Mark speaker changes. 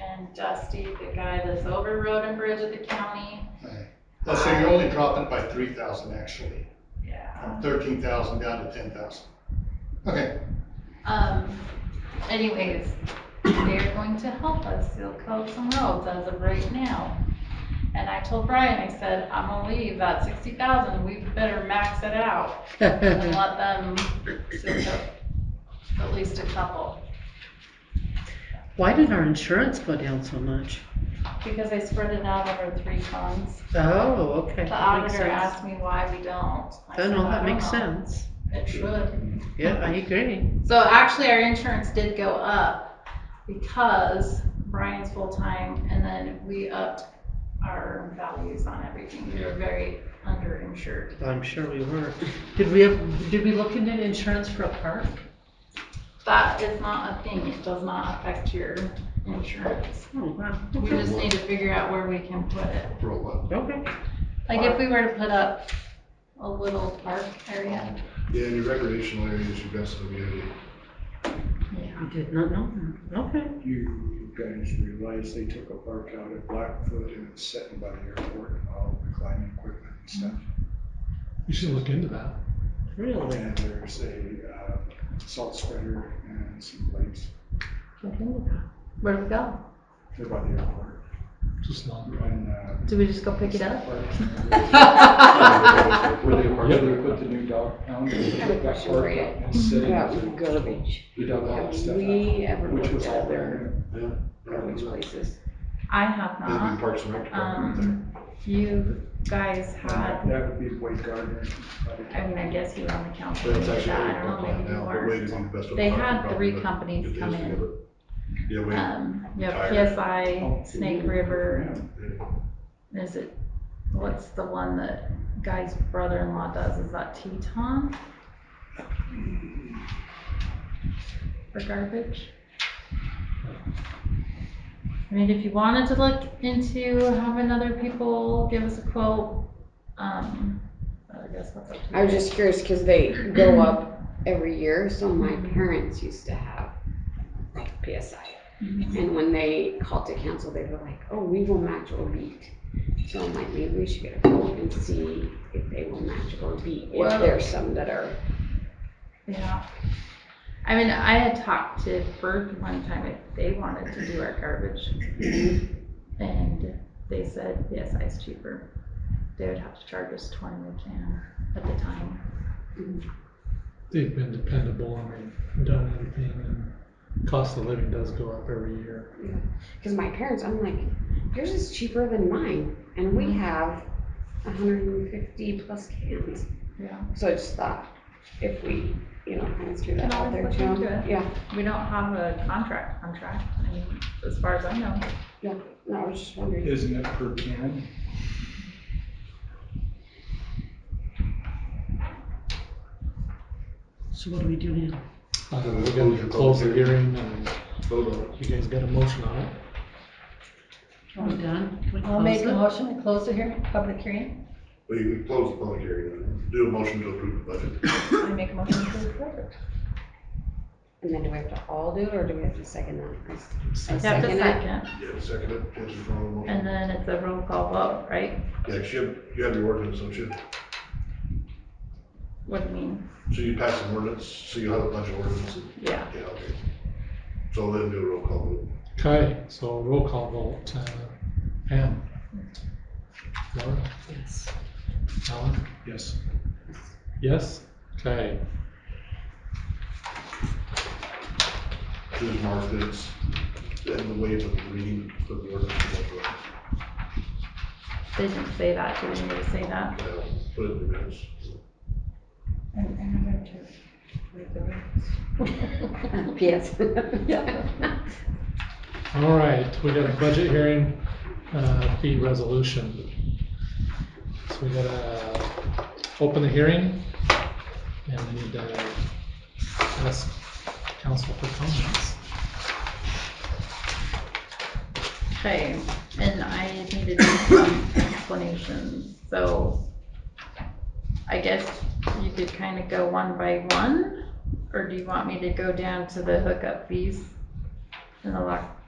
Speaker 1: and Dusty, the guy that's over road and bridge at the county.
Speaker 2: Right. Well, so you're only dropping it by three thousand actually,
Speaker 1: Yeah.
Speaker 2: from thirteen thousand down to ten thousand. Okay,
Speaker 1: Um, anyways, they're going to help us seal coat some roads as of right now. And I told Brian, I said, I'm gonna leave that sixty thousand, we better max it out and let them seal coat at least a couple.
Speaker 3: Why did our insurance go down so much?
Speaker 1: Because I spread it out over three funds.
Speaker 3: Oh, okay.
Speaker 1: The
Speaker 3: that makes
Speaker 1: auditor
Speaker 3: sense.
Speaker 1: asked me why we don't. I
Speaker 3: Oh,
Speaker 1: said,
Speaker 3: no,
Speaker 1: "I
Speaker 3: that
Speaker 1: don't
Speaker 3: makes
Speaker 1: know."
Speaker 3: sense.
Speaker 1: It should.
Speaker 3: Yeah, I agree.
Speaker 1: So actually, our insurance did go up because Brian's full-time and then we upped our values on everything. We were very underinsured.
Speaker 3: I'm sure we were. Did we have, did we look into insurance for a park?
Speaker 1: That is not a thing. It does not affect your insurance.
Speaker 3: Oh, wow.
Speaker 1: We just need to figure out where we can put it.
Speaker 2: roll up.
Speaker 3: Okay.
Speaker 1: Like if we were to put up a little park area.
Speaker 4: Yeah, in your recreational area is your best amenity.
Speaker 3: I did not know that. Okay.
Speaker 4: You guys realize they took a park out at Blackfoot and it's sitting by the airport and all the climbing equipment and stuff.
Speaker 5: You should look into that.
Speaker 3: Really?
Speaker 4: And there's a uh, salt spreader and some plates.
Speaker 1: Where do we go?
Speaker 4: They're by the airport.
Speaker 5: Just not.
Speaker 4: And, uh,
Speaker 1: Do we just go pick it up?
Speaker 4: Where they, where they put the new dog pound. they
Speaker 6: have a
Speaker 4: took that
Speaker 6: question
Speaker 4: park
Speaker 6: for you.
Speaker 4: out and set it
Speaker 6: About
Speaker 4: up.
Speaker 6: garbage.
Speaker 4: We dug all that
Speaker 6: Have
Speaker 4: stuff out,
Speaker 6: we ever
Speaker 4: which
Speaker 6: looked
Speaker 4: was
Speaker 6: at
Speaker 4: all
Speaker 6: other
Speaker 4: there.
Speaker 6: garbage places?
Speaker 1: I have
Speaker 4: That'd
Speaker 1: not.
Speaker 4: be Parks and Rec department
Speaker 1: Um, you guys had,
Speaker 4: That would be Wade Gardner.
Speaker 1: I mean, I guess you were on the council.
Speaker 4: But it's
Speaker 1: with
Speaker 4: actually
Speaker 1: that. I
Speaker 4: a
Speaker 1: don't know,
Speaker 4: plan
Speaker 1: maybe you
Speaker 4: now, but
Speaker 1: weren't.
Speaker 4: Wade is on the best of the.
Speaker 1: They
Speaker 4: park
Speaker 1: had
Speaker 4: department,
Speaker 1: three
Speaker 4: but
Speaker 1: companies
Speaker 4: it
Speaker 1: come
Speaker 4: is the
Speaker 1: in.
Speaker 4: other- Yeah, Wade.
Speaker 1: Um, you have
Speaker 4: Tired.
Speaker 1: PSI, Snake River, is it, what's the one that Guy's brother-in-law does? Is that Teton? For garbage? I mean, if you wanted to look into having other people give us a quote, um, I guess that's up to you.
Speaker 6: I was just curious because they
Speaker 1: Mm-hmm.
Speaker 6: go up every year. So my parents used to have like PSI.
Speaker 1: Mhm.
Speaker 6: And when they called to cancel, they were like, oh, we will match or beat. So I'm like, maybe we should get a quote and see if they will match or beat.
Speaker 1: Well-
Speaker 6: If there's some that are,
Speaker 1: Yeah. I mean, I had talked to Berg one time if they wanted to do our garbage. And they said, yes, it's cheaper. They would have to charge us twenty a can at the time.
Speaker 5: They've been dependable and they've done everything and cost of living does go up every year.
Speaker 6: because my parents, I'm like, yours is cheaper than mine. And we have 150 plus cans.
Speaker 1: Yeah.
Speaker 6: So I just thought if we, you know, kind of threw
Speaker 1: Can
Speaker 6: that out
Speaker 1: always
Speaker 6: there
Speaker 1: look
Speaker 6: too.
Speaker 1: into it.
Speaker 6: Yeah,
Speaker 1: We don't have a contract, contract, I mean, as far as I know.
Speaker 6: no, I was just wondering.
Speaker 4: Isn't it per can?
Speaker 3: So what do we do now?
Speaker 5: I don't know, we're gonna close the hearing and you guys got a motion on it?
Speaker 3: Are we done? Can we
Speaker 7: I'll
Speaker 3: close
Speaker 7: make a
Speaker 3: it?
Speaker 7: motion to close the hearing, public hearing.
Speaker 4: We we close the public hearing, then. do a motion to approve the budget.
Speaker 7: I make a motion to approve it.
Speaker 6: And then do we have to all do it or do we have to second that?
Speaker 1: You
Speaker 6: I
Speaker 1: have to
Speaker 6: second it.
Speaker 1: second,
Speaker 4: Yeah, second it, Nancy, follow the motion.
Speaker 1: and then it's a roll call vote, right?
Speaker 4: Yeah, 'cause you have, you have your ordinance, don't you?
Speaker 1: What do you mean?
Speaker 4: So you pass an ordinance, so you have a bunch of ordinances,
Speaker 1: Yeah,
Speaker 4: yeah, okay. So then do a roll call vote.
Speaker 5: Okay, so roll call vote, uh, Pam? Laura?
Speaker 3: Yes.
Speaker 5: Alan?
Speaker 4: Yes.
Speaker 5: Yes? Okay,
Speaker 4: Just mark that it's in the way of the reading of the ordinance.
Speaker 1: they didn't say that, did anybody say that?
Speaker 4: Yeah, Put it in the minutes.
Speaker 7: And, and I'm going to read the rest.
Speaker 6: Yes.
Speaker 5: all right, we got a budget hearing, uh, fee resolution. So we gotta open the hearing and we need to ask council for comments.
Speaker 1: Okay, and I need to do some explanations, so I guess you could kind of go one by one, or do you want me to go down to the hookup fees and the lock,